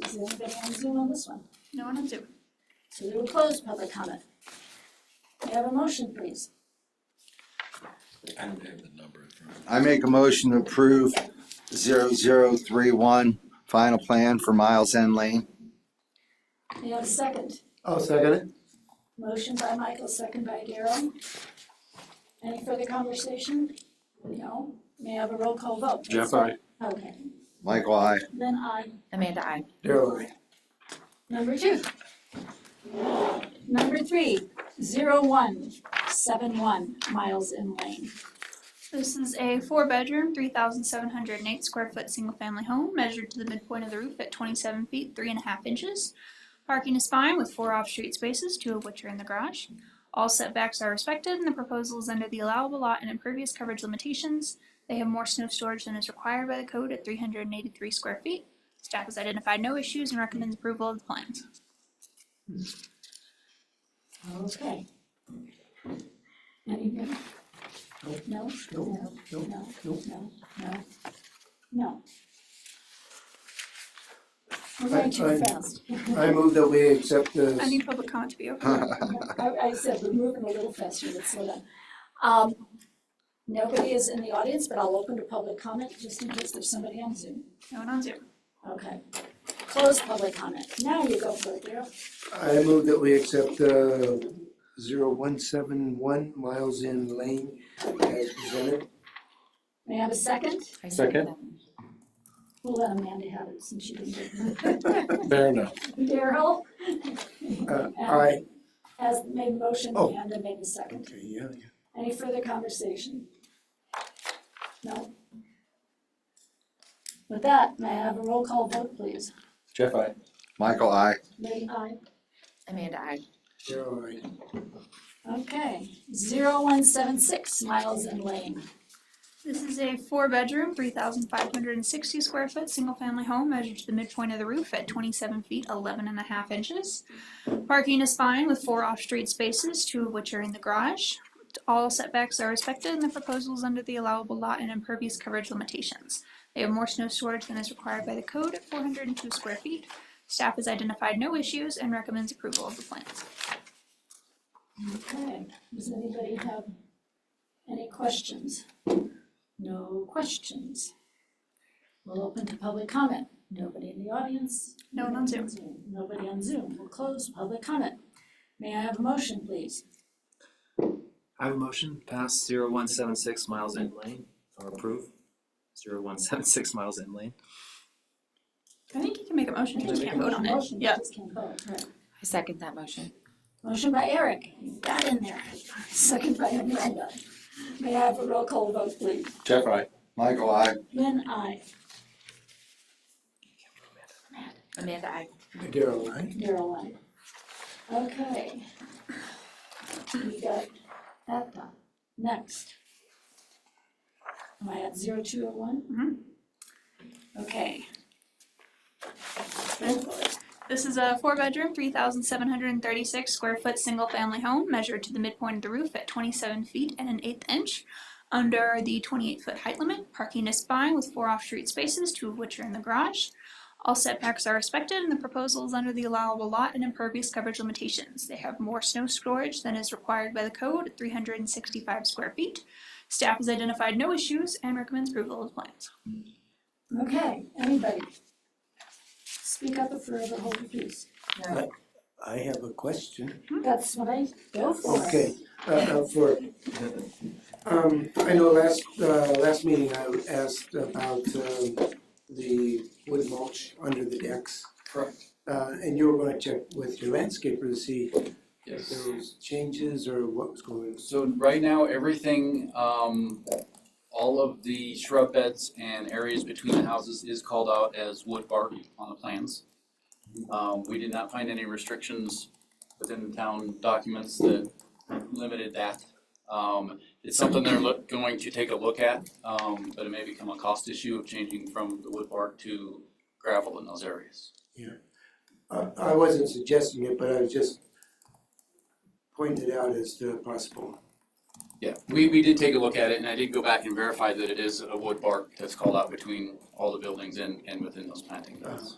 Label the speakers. Speaker 1: Does anybody on Zoom on this one?
Speaker 2: No one on Zoom.
Speaker 1: So we will close public comment. May I have a motion, please?
Speaker 3: I don't have the number in front of me.
Speaker 4: I make a motion to approve zero zero three one, final plan for Miles End Lane.
Speaker 1: May I have a second?
Speaker 5: I'll second it.
Speaker 1: Motion by Michael, second by Daryl. Any further conversation? No? May I have a roll call vote?
Speaker 6: Jeff, aye.
Speaker 1: Okay,
Speaker 4: Michael, I.
Speaker 1: then I
Speaker 7: Amanda, I.
Speaker 5: Daryl, aye.
Speaker 1: Number two. Number three, zero one, seven one, Miles in Lane.
Speaker 2: This is a four-bedroom, three thousand seven hundred and eight square foot single-family home measured to the midpoint of the roof at twenty-seven feet, three and a half inches. Parking is fine with four off-street spaces, two of which are in the garage. All setbacks are respected and the proposal is under the allowable lot and impervious coverage limitations. They have more snow storage than is required by the code at three hundred and eighty-three square feet. Staff has identified no issues and recommends approval of the plans.
Speaker 1: Okay. Anything?
Speaker 5: Nope.
Speaker 1: No?
Speaker 5: Nope, nope,
Speaker 1: No, no,
Speaker 5: nope.
Speaker 1: no, no, no. We're
Speaker 5: I-
Speaker 1: going too
Speaker 5: I-
Speaker 1: fast.
Speaker 5: I move that we accept this.
Speaker 2: I need public comment to be open.
Speaker 1: I, I said we're moving a little faster, let's slow down. Um, nobody is in the audience, but I'll open to public comment just in case there's somebody on Zoom.
Speaker 2: No one on Zoom.
Speaker 1: Okay. Close public comment. Now you go for it, Daryl.
Speaker 5: I move that we accept uh zero one seven one Miles in Lane as presented.
Speaker 1: May I have a second?
Speaker 7: I
Speaker 6: Second.
Speaker 7: that.
Speaker 1: We'll let Amanda have it since she didn't get
Speaker 6: Fair enough.
Speaker 1: it. Daryl
Speaker 5: Uh, aye.
Speaker 1: has made motion,
Speaker 5: Oh.
Speaker 1: Amanda made the second.
Speaker 5: Okay, yeah, yeah.
Speaker 1: Any further conversation? No? With that, may I have a roll call vote, please?
Speaker 6: Jeff, I.
Speaker 4: Michael, I.
Speaker 1: Lee, aye.
Speaker 7: Amanda, I.
Speaker 5: Daryl, aye.
Speaker 1: Okay, zero one seven six Miles and Lane.
Speaker 2: This is a four-bedroom, three thousand five hundred and sixty square foot, single-family home measured to the midpoint of the roof at twenty-seven feet, eleven and a half inches. Parking is fine with four off-street spaces, two of which are in the garage. All setbacks are respected and the proposal is under the allowable lot and impervious coverage limitations. They have more snow storage than is required by the code at four hundred and two square feet. Staff has identified no issues and recommends approval of the plans.
Speaker 1: Okay, does anybody have any questions? No questions. We'll open to public comment. Nobody in the audience.
Speaker 2: No one on Zoom.
Speaker 1: Nobody on Zoom. We'll close public comment. May I have a motion, please?
Speaker 8: I have a motion, pass zero one seven six miles in lane, or approve zero one seven six miles in lane.
Speaker 2: I think you can make a motion, you
Speaker 8: Can I
Speaker 2: just
Speaker 8: make a
Speaker 2: can't vote on it.
Speaker 1: Motion,
Speaker 2: Yeah.
Speaker 1: just can't vote, right.
Speaker 7: I second that motion.
Speaker 1: Motion by Eric, you got in there. Second by Amanda. May I have a roll call vote, please?
Speaker 6: Jeff, I.
Speaker 4: Michael, I.
Speaker 1: Lynn, I.
Speaker 7: Amanda, I.
Speaker 5: Daryl, aye.
Speaker 1: Daryl, aye. Okay. We got that done. Next. Am I at zero two oh one? Okay. Go for it.
Speaker 2: This is a four bedroom, three thousand seven hundred and thirty-six square foot, single family home measured to the midpoint of the roof at twenty-seven feet and an eighth inch. Under the twenty-eight foot height limit, parking is fine with four off-street spaces, two of which are in the garage. All setbacks are respected and the proposal is under the allowable lot and impervious coverage limitations. They have more snow storage than is required by the code at three hundred and sixty-five square feet. Staff has identified no issues and recommends approval of the plans.
Speaker 1: Okay, anybody? Speak up if you're ever holding peace.
Speaker 5: I have a question.
Speaker 1: That's what I go for.
Speaker 5: Okay, uh, uh, for, um, I know last, uh, last meeting I asked about, um, the wood mulch under the decks.
Speaker 6: Correct.
Speaker 5: Uh, and you were gonna check with your landscaper to see if
Speaker 6: Yes.
Speaker 5: there was changes or what was going on.
Speaker 6: So right now, everything, um, all of the shrub beds and areas between the houses is called out as wood bark on the plans. Um, we did not find any restrictions within the town documents that limited that. Um, it's something they're look, going to take a look at, um, but it may become a cost issue of changing from the wood bark to gravel in those areas.
Speaker 5: I, I wasn't suggesting it, but I was just pointed out as the possible.
Speaker 6: Yeah, we, we did take a look at it and I did go back and verify that it is a wood bark that's called out between all the buildings and, and within those planting beds.